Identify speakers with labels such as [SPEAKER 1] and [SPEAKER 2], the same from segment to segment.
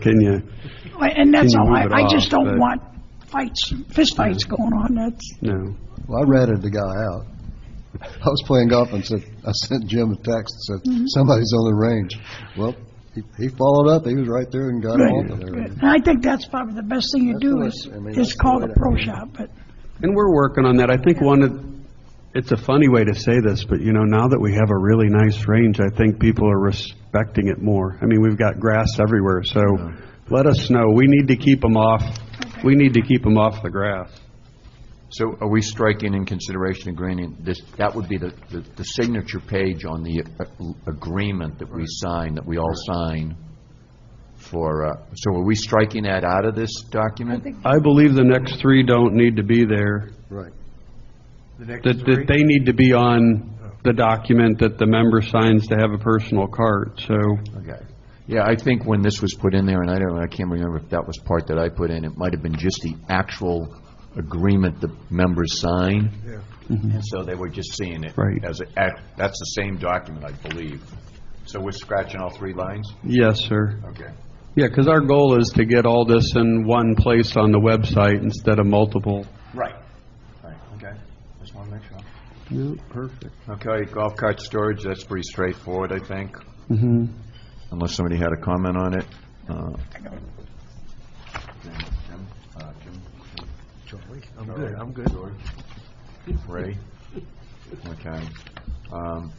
[SPEAKER 1] Can you,
[SPEAKER 2] Right, And that's
[SPEAKER 1] Can you
[SPEAKER 2] all,
[SPEAKER 1] move
[SPEAKER 2] I,
[SPEAKER 1] it
[SPEAKER 2] I just
[SPEAKER 1] off,
[SPEAKER 2] don't
[SPEAKER 1] but-
[SPEAKER 2] want fights, fistfights going on, that's,
[SPEAKER 1] no.
[SPEAKER 3] Well, I ratted the guy out. I was playing golf and said, I sent Jim a text and
[SPEAKER 1] Mm-hmm.
[SPEAKER 3] said, somebody's on the range. Well, he, he followed up, he was right there and got him
[SPEAKER 2] Right.
[SPEAKER 3] off of there.
[SPEAKER 2] and I think that's probably the best thing you
[SPEAKER 3] That's
[SPEAKER 2] do
[SPEAKER 3] what I-
[SPEAKER 2] is,
[SPEAKER 3] I mean, that's
[SPEAKER 2] is
[SPEAKER 3] the
[SPEAKER 2] call
[SPEAKER 3] way
[SPEAKER 2] the
[SPEAKER 3] to-
[SPEAKER 2] pro shop, but,
[SPEAKER 1] And we're working on that. I think one of, it's a funny way to say this, but you know, now that we have a really nice range, I think people are respecting it more. I mean, we've got grass everywhere, so let us know. We need to keep them off, we need to keep them off the grass.
[SPEAKER 4] So are we striking in consideration agreeing, this, that would be the, the the signature page on the uh, agreement that we sign, that we all sign for, uh, so are we striking that out of this document?
[SPEAKER 1] I believe the next three don't need to be there,
[SPEAKER 3] Right.
[SPEAKER 1] that, that they need to be on the document that the member signs to have a personal cart, so,
[SPEAKER 4] Okay. Yeah, I think when this was put in there, and I don't, I can't remember if that was part that I put in, it might have been just the actual agreement the members sign. Yeah. And so they were just seeing it.
[SPEAKER 1] Right.
[SPEAKER 4] As, a- ac- that's the same document, I believe. So we're scratching all three lines?
[SPEAKER 1] yes, sir.
[SPEAKER 4] Okay.
[SPEAKER 1] Yeah, because our goal is to get all this in one place on the website instead of multiple.
[SPEAKER 4] Right. Right, okay. Just want to make sure.
[SPEAKER 1] perfect.
[SPEAKER 4] Okay, golf cart storage, that's pretty straightforward, I think. Mm-hmm. Unless somebody had a comment on it. uh, Jim, uh, Jim?
[SPEAKER 5] I'm good, I'm good.
[SPEAKER 4] Ray? Okay. Um,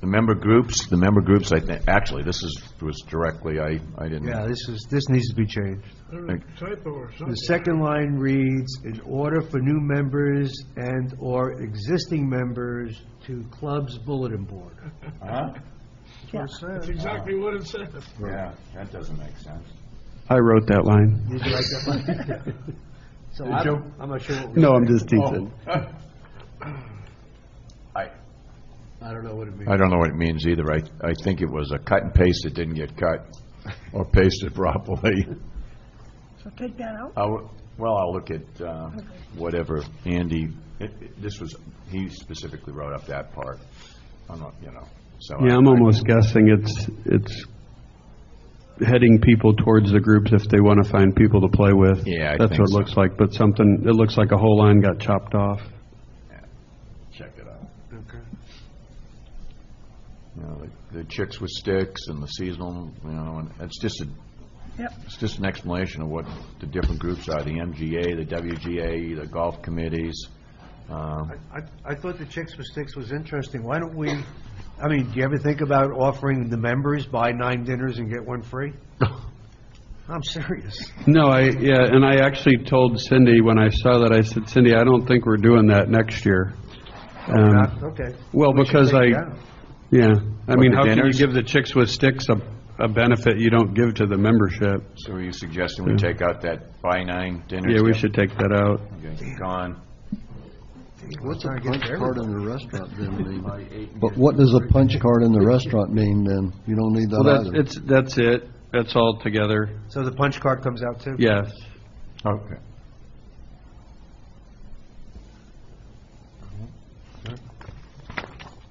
[SPEAKER 4] The member groups, the member groups, I think, actually, this is, was directly, I, I didn't.
[SPEAKER 5] Yeah, this is, this needs to be changed.
[SPEAKER 6] Typo or
[SPEAKER 5] The
[SPEAKER 6] something.
[SPEAKER 5] second line reads, "In order for new members and/or existing members to club's bulletin board."
[SPEAKER 4] Huh?
[SPEAKER 6] That's exactly what it says.
[SPEAKER 4] Yeah, that doesn't make sense.
[SPEAKER 1] I wrote that line.
[SPEAKER 5] Did you write that one? So I'm, I'm not sure what we,
[SPEAKER 1] No, I'm just teasing.
[SPEAKER 4] I,
[SPEAKER 5] I don't know what it means.
[SPEAKER 4] I don't know what it means either. I, I think it was a cut and paste that didn't get cut or pasted properly.
[SPEAKER 2] so take that out.
[SPEAKER 4] I'll- Well, I'll look at uh, whatever Andy, it- it- this was, he specifically wrote up that part. I'm not, you know, so. I-
[SPEAKER 1] Yeah, I'm almost guessing it's, it's heading people towards the groups if they want to find people to play with.
[SPEAKER 4] Yeah, I
[SPEAKER 1] That's
[SPEAKER 4] think
[SPEAKER 1] what it
[SPEAKER 4] so.
[SPEAKER 1] looks like, but something, it looks like a whole line got chopped off.
[SPEAKER 4] Check it out. You know, like the chicks with sticks and the seasonal, you know, and it's just a,
[SPEAKER 2] Yep.
[SPEAKER 4] it's just an explanation of what the different groups are, the MGA, the WGA, the golf committees. um,
[SPEAKER 5] I, I thought the Chicks with Sticks was interesting. Why don't we, I mean, do you ever think about offering the members buy nine dinners and get one free? I'm serious.
[SPEAKER 1] No, I, yeah, and I actually told Cindy when I saw that, I said, Cindy, I don't think we're doing that next year. Um,
[SPEAKER 5] Not- Okay.
[SPEAKER 1] Well,
[SPEAKER 5] We should
[SPEAKER 1] because
[SPEAKER 5] take
[SPEAKER 1] I,
[SPEAKER 5] it out.
[SPEAKER 1] yeah, I mean,
[SPEAKER 4] the
[SPEAKER 1] how can you
[SPEAKER 4] dinners?
[SPEAKER 1] give the Chicks with Sticks a, a benefit you don't give to the membership?
[SPEAKER 4] So are you suggesting we take out that buy nine dinner?
[SPEAKER 1] Yeah, we should take that out.
[SPEAKER 4] Okay, Gone.
[SPEAKER 3] What's a
[SPEAKER 5] Trying to get
[SPEAKER 3] punch
[SPEAKER 5] to
[SPEAKER 3] card in the restaurant then mean?
[SPEAKER 4] eight and
[SPEAKER 3] But what does a punch card in the restaurant mean then? You don't need
[SPEAKER 1] Well,
[SPEAKER 3] that
[SPEAKER 1] that's,
[SPEAKER 3] either.
[SPEAKER 1] it's, that's it, that's all together,
[SPEAKER 5] So the punch card comes out too?
[SPEAKER 1] yes.
[SPEAKER 4] Okay.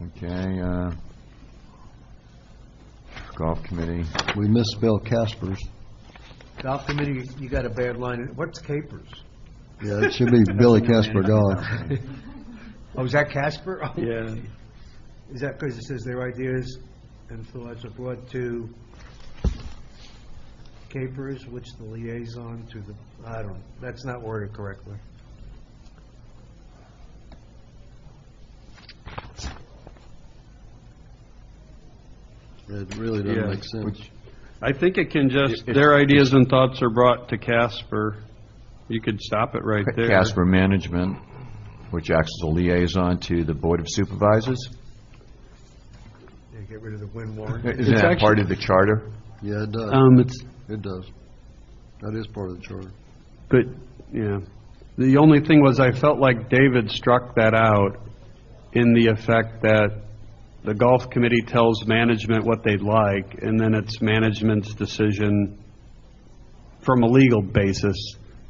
[SPEAKER 4] Okay, uh, golf committee,
[SPEAKER 3] We misspelled Casper's.
[SPEAKER 5] Golf committee, you got a bad line. What's capers?
[SPEAKER 3] Yeah, it should be Billy Casper Golf.
[SPEAKER 5] Oh, is that Casper? Oh,
[SPEAKER 1] Yeah.
[SPEAKER 5] Is that because it says their ideas and thoughts are brought to capers, which the liaison to the, I don't, that's not worded correctly.
[SPEAKER 3] It really
[SPEAKER 1] Yeah.
[SPEAKER 3] doesn't make sense.
[SPEAKER 1] I think it can just, their ideas and thoughts are brought to Casper, you could stop it right there.
[SPEAKER 4] Casper Management, which acts as a liaison to the Board of Supervisors.
[SPEAKER 5] Yeah, get rid of the win warrant.
[SPEAKER 4] Isn't that part of the charter?
[SPEAKER 3] Yeah, it does.
[SPEAKER 1] Um, it's,
[SPEAKER 3] It does. That is part of the charter.
[SPEAKER 1] but, yeah, the only thing was, I felt like David struck that out in the effect that the golf committee tells management what they'd like, and then it's management's decision from a legal basis,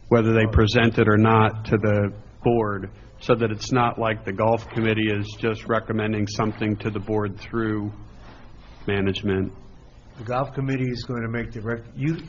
[SPEAKER 1] whether they present it or not to the board, so that it's not like the golf committee is just recommending something to the board through management.
[SPEAKER 5] The golf committee is going to make the, rec- you,